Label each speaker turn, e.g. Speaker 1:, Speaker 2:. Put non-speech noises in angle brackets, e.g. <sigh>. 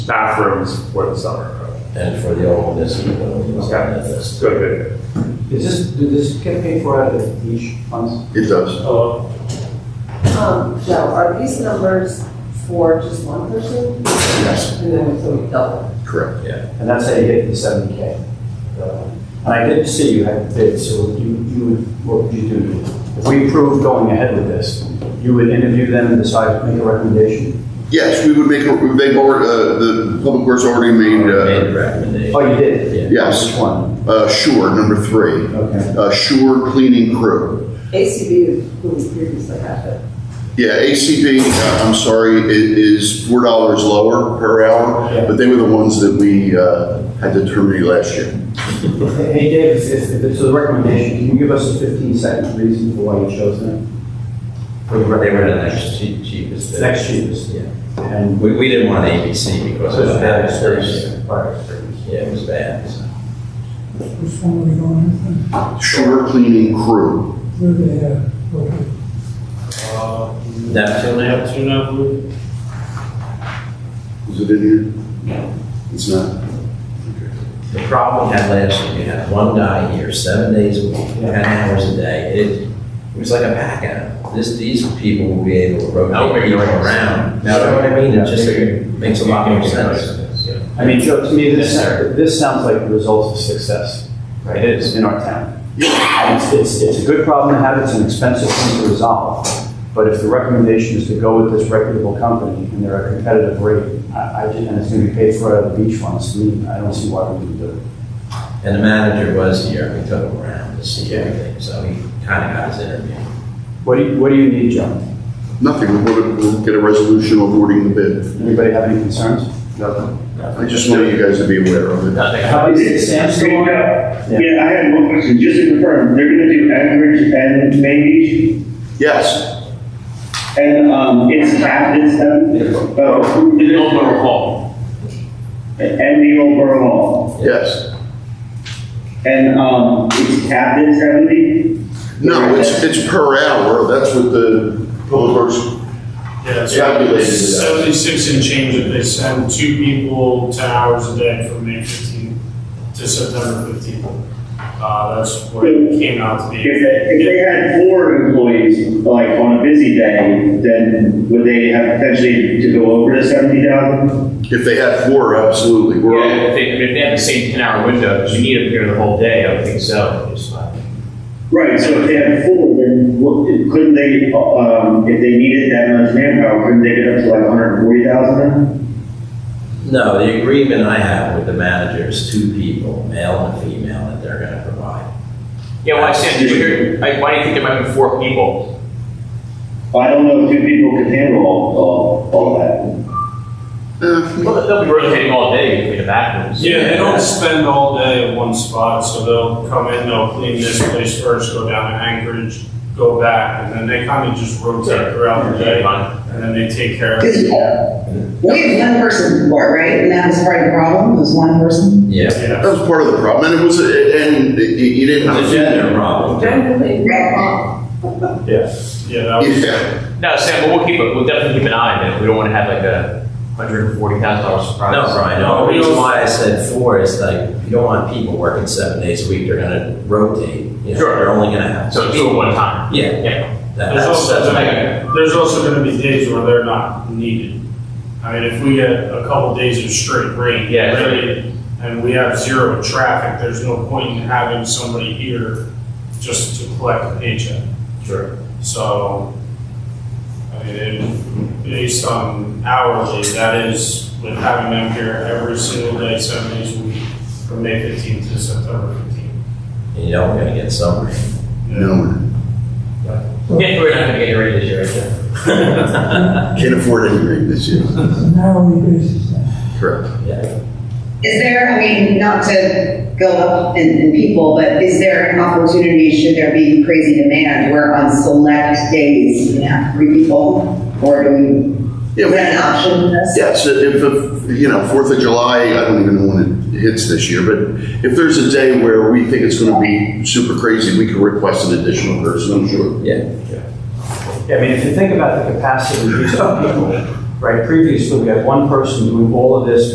Speaker 1: bathrooms for the summer.
Speaker 2: and for the old municipal building, it's on that list.
Speaker 1: Good, good.
Speaker 3: Is this, did this get paid for out of the beach funds?
Speaker 4: It does.
Speaker 3: Uh,
Speaker 1: Hello?
Speaker 5: Um, Joe, are these numbers for just one person?
Speaker 4: Yes,
Speaker 5: And then so we double?
Speaker 4: correct.
Speaker 3: And that's how you get the seventy K. Uh, And I did see you had bids, so you, you would, what would you do? If we approved going ahead with this, you would interview them and decide, make a recommendation?
Speaker 4: Yes, we would make, they've already, uh, the public works already made,
Speaker 2: Made
Speaker 4: uh,
Speaker 2: the recommendation.
Speaker 3: Oh, you did?
Speaker 4: Yes.
Speaker 3: Which one?
Speaker 4: uh, Shore, number three,
Speaker 3: Okay.
Speaker 4: uh, Shore Cleaning Crew.
Speaker 5: ACB, who we previously had, but
Speaker 4: Yeah, ACB, uh, I'm sorry, i- is four dollars lower per hour, but they were the ones that we, uh, had to terminate last year.
Speaker 3: Hey, Dave, if, if it's a recommendation, can you give us a fifteen second reason for why you chose them? For the
Speaker 2: They were the
Speaker 3: recommendation?
Speaker 2: next chea- cheapest. bid.
Speaker 3: Next cheapest.
Speaker 2: Yeah.
Speaker 3: And.
Speaker 2: We, we didn't want ABC because it was bad experience.
Speaker 3: Prior experience.
Speaker 2: Yeah, it was bad. so.
Speaker 6: Which one are we going with?
Speaker 4: Shore Cleaning Crew.
Speaker 6: Where they, uh, okay.
Speaker 2: Neptune out?
Speaker 4: Is it in here? It's not.
Speaker 2: The problem we had last year, you had one guy here, seven days a week, ten hours a day. It, it was like a pack out. This, these people will be able to rotate people around. Now, you know what I mean? It just makes a lot more sense.
Speaker 3: I mean, Joe, to me, this, this sounds like the result of success. It is in our town. And It's, it's, it's a good problem to have, it's an expensive thing to resolve. But if the recommendation is to go with this reputable company and they're a competitive rate, I, I, ju- and it's gonna be paid for out of the beach funds, to me, I don't see why we wouldn't do it.
Speaker 2: And the manager was here, we took him around to see everything, so he kind of got his interview.
Speaker 3: What do you, what do you need, Joe?
Speaker 4: Nothing, we'll, we'll get a resolution awarding the bid.
Speaker 3: Anybody have any concerns? Nothing.
Speaker 4: I just wanted you guys to be aware of it.
Speaker 3: How is it, Sam's still on? Yeah.
Speaker 7: Yeah, I had one question, just to confirm, they're gonna do Anchorage and Main Beach?
Speaker 4: Yes,
Speaker 7: And, um, it's half, it's them? Oh. The Old Borough Hall. And the Old Borough Hall,
Speaker 4: yes.
Speaker 7: and, um, it's capped at seventy?
Speaker 4: No, it's, it's per hour, that's what the public works,
Speaker 8: Yeah, it's
Speaker 4: Calculated it out.
Speaker 8: seventy-six and change if they send two people ten hours a day from May fifteenth to September fifteenth. Uh, that's what it came out to be.
Speaker 7: If they, if they had four employees, like, on a busy day, then would they have potentially to go over the seventy thousand?
Speaker 4: if they had four, absolutely. We're-
Speaker 9: Yeah, if they, I mean, if they have the same ten-hour window, because you need them here the whole day, I would think so. It's like-
Speaker 7: Right, so if they had four, then what, couldn't they, um, if they needed that much manpower, couldn't they get up to like hundred and forty thousand then?
Speaker 2: No, the agreement I have with the manager is two people, male and female, that they're gonna provide.
Speaker 9: Yeah, well, I understand, but here, like, why do you think there might be four people?
Speaker 7: Well, I don't know if two people can handle all, all, all that.
Speaker 4: Eh,
Speaker 9: Well, they'll be rotating all day between the bathrooms.
Speaker 8: Yeah, they don't spend all day in one spot, so they'll come in, they'll clean this place first, go down to Anchorage, go back, and then they kind of just rotate throughout the day, and then they take care of it.
Speaker 10: Because uh, we had one person before, right? And that was part of the problem, was one person.
Speaker 2: Yeah.
Speaker 8: Yeah.
Speaker 4: That was part of the problem, and it was, eh, and you- you didn't
Speaker 2: It's a
Speaker 4: have.
Speaker 2: gender problem.
Speaker 5: generally, uh,
Speaker 8: Yeah, that was.
Speaker 4: Yeah,
Speaker 9: No, Sam, but we'll keep, it. we'll definitely keep an eye on it, we don't want to have like a hundred and forty thousand dollar surprise.
Speaker 2: No, Brian, no, the reason why I said four is like, you don't want people working seven days a week, they're gonna rotate. You know,
Speaker 9: Sure.
Speaker 2: They're only gonna have.
Speaker 9: So two at one time.
Speaker 2: Yeah,
Speaker 9: Yeah.
Speaker 2: that-
Speaker 8: There's
Speaker 2: that's,
Speaker 8: also,
Speaker 2: that's my.
Speaker 8: gonna- there's also gonna be days where they're not needed. I mean, if we get a couple days of straight rain,
Speaker 9: Yeah.
Speaker 8: really, and we have zero traffic, there's no point in having somebody here just to collect a paycheck.
Speaker 9: Sure.
Speaker 8: So, I mean, it- based on hourly, that is with having them here every single day, seven days a week, from May fifteenth to September fifteenth.
Speaker 2: You know, we're gonna get some rain.
Speaker 4: no,
Speaker 9: Yeah, we're not gonna get ready this year, right?
Speaker 4: can't afford anything this year,
Speaker 6: It's an hourly basis now.
Speaker 4: correct.
Speaker 2: <laughs> Yeah.
Speaker 10: Is there, I mean, not to go up in, in people, but is there an opportunity, should there be crazy demand where on select days you have three people? Or do we,
Speaker 4: Yeah,
Speaker 10: is
Speaker 4: we-
Speaker 10: that an option? in this?
Speaker 4: Yes, if, if, you know, Fourth of July, I don't even know when it hits this year, but if there's a day where we think it's gonna be super crazy, we could request an additional person, I'm sure.
Speaker 3: Yeah, I mean, if you think about the capacity of these people, right, previously, we had one person doing all of this